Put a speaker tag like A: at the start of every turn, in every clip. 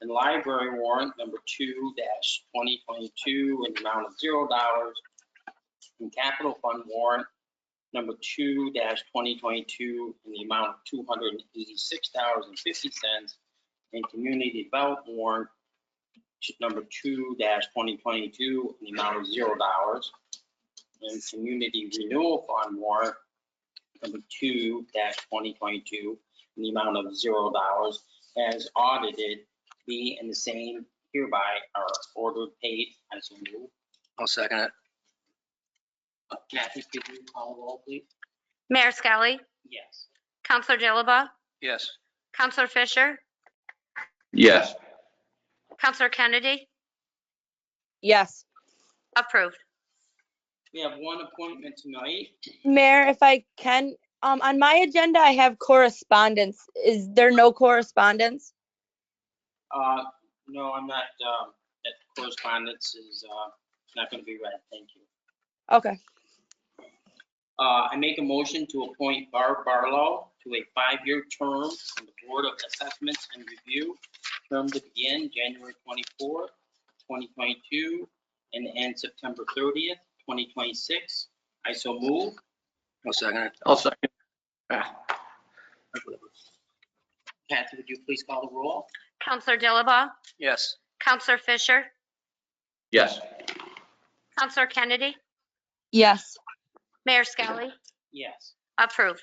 A: and library warrant number two dash twenty twenty-two in the amount of zero dollars. And capital fund warrant number two dash twenty twenty-two in the amount of two hundred and eighty-six dollars and fifty cents. And community development warrant number two dash twenty twenty-two in the amount of zero dollars. And community renewal fund warrant number two dash twenty twenty-two in the amount of zero dollars as audited be and the same hereby are ordered paid as a rule. Uh,
B: I'll second it.
A: Kathy, could you call the roll, please?
C: Mayor Skelly,
A: Yes.
C: Counselor Dilaba,
B: Yes.
C: Counselor Fisher,
D: yes,
C: Counselor Kennedy,
E: Yes.
C: approved.
A: We have one appointment tonight.
E: Mayor, if I can, um, on my agenda, I have correspondence. Is there no correspondence?
A: Uh, No, I'm not, um, that correspondence is uh, not going to be read. Thank you.
E: Okay.
A: Uh, I make a motion to appoint Barb Barlow to a five-year term on the Board of Assessments and Review, term to begin January 24, 2022, and end September 30th, 2026. I so move.
B: I'll second it.
D: I'll second. Ah,
A: Kathy, would you please call the roll?
C: Counselor Dilaba,
B: Yes.
C: Counselor Fisher,
D: Yes,
C: Counselor Kennedy,
E: Yes.
C: Mayor Skelly,
A: Yes.
C: approved.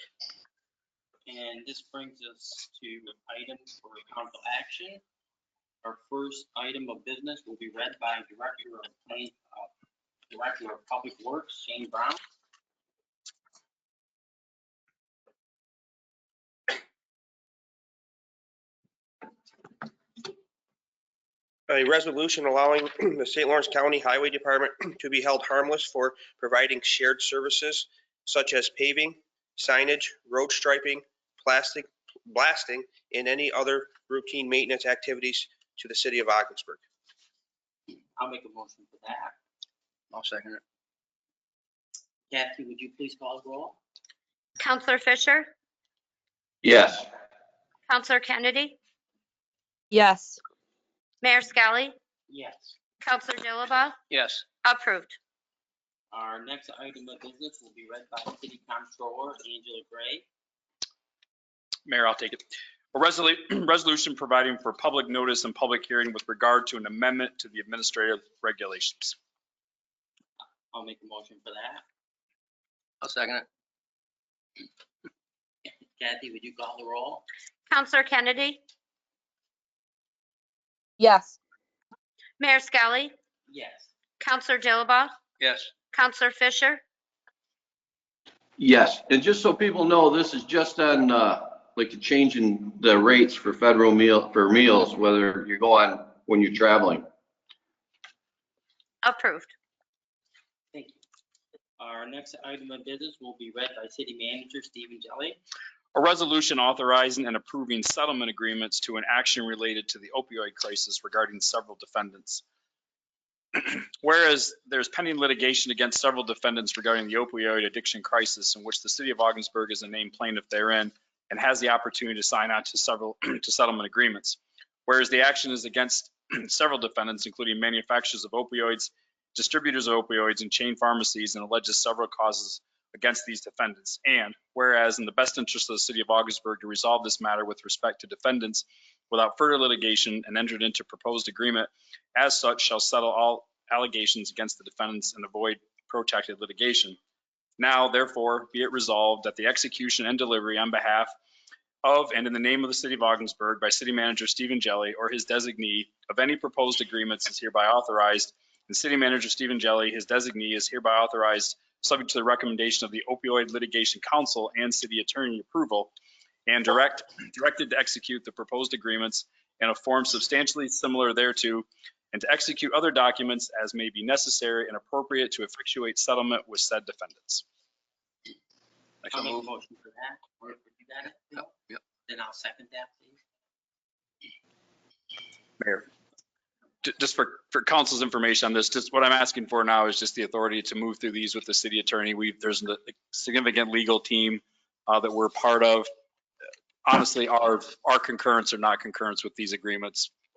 A: And this brings us to items for council action. Our first item of business will be read by Director of, Plan- uh, Director of Public Works, Shane Brown.
F: A resolution allowing the St. Lawrence County Highway Department to be held harmless for providing shared services such as paving, signage, road striping, plastic, blasting, and any other routine maintenance activities to the city of Augsburg.
A: I'll make a motion for that.
B: I'll second it.
A: Kathy, would you please call the roll?
C: Counselor Fisher,
D: yes,
C: Counselor Kennedy,
E: Yes.
C: Mayor Skelly,
A: Yes.
C: Counselor Dilaba,
B: Yes.
C: approved.
A: Our next item of business will be read by City Comptroller Angela Gray.
G: Mayor, I'll take it. A resolu- resolution providing for public notice and public hearing with regard to an amendment to the administrative regulations.
A: I'll make a motion for that.
B: I'll second it.
A: Kathy, would you call the roll?
C: Counselor Kennedy,
E: Yes.
C: Mayor Skelly,
A: Yes.
C: Counselor Dilaba,
B: Yes.
C: Counselor Fisher,
D: yes. And just so people know, this is just on, uh, like the change in the rates for federal meal, for meals, whether you go on when you're traveling.
C: approved.
A: Thank you. Our next item of business will be read by City Manager Stephen Jelly.
G: A resolution authorizing and approving settlement agreements to an action related to the opioid crisis regarding several defendants. Whereas there's pending litigation against several defendants regarding the opioid addiction crisis in which the city of Augsburg is a named plaintiff therein and has the opportunity to sign on to several, to settlement agreements. Whereas the action is against several defendants, including manufacturers of opioids, distributors of opioids, and chain pharmacies, and alleges several causes against these defendants. And whereas in the best interest of the city of Augsburg to resolve this matter with respect to defendants without further litigation and entered into proposed agreement, as such shall settle all allegations against the defendants and avoid protracted litigation. Now therefore be it resolved that the execution and delivery on behalf of and in the name of the city of Augsburg by city manager Stephen Jelly or his designee of any proposed agreements is hereby authorized and city manager Stephen Jelly, his designee, is hereby authorized subject to the recommendation of the opioid litigation council and city attorney approval and direct, directed to execute the proposed agreements in a form substantially similar thereto and to execute other documents as may be necessary and appropriate to effectuate settlement with said defendants.
B: I
A: I'll
B: shall
A: make a
B: move.
A: motion for that. Or if you got it, Bill?
B: Yep.
A: Then I'll second that, please.
G: Mayor. Ju- Just for, for council's information on this, just what I'm asking for now is just the authority to move through these with the city attorney. We, there's a significant legal team uh, that we're part of. Honestly, our, our concurrence or not concurrence with these agreements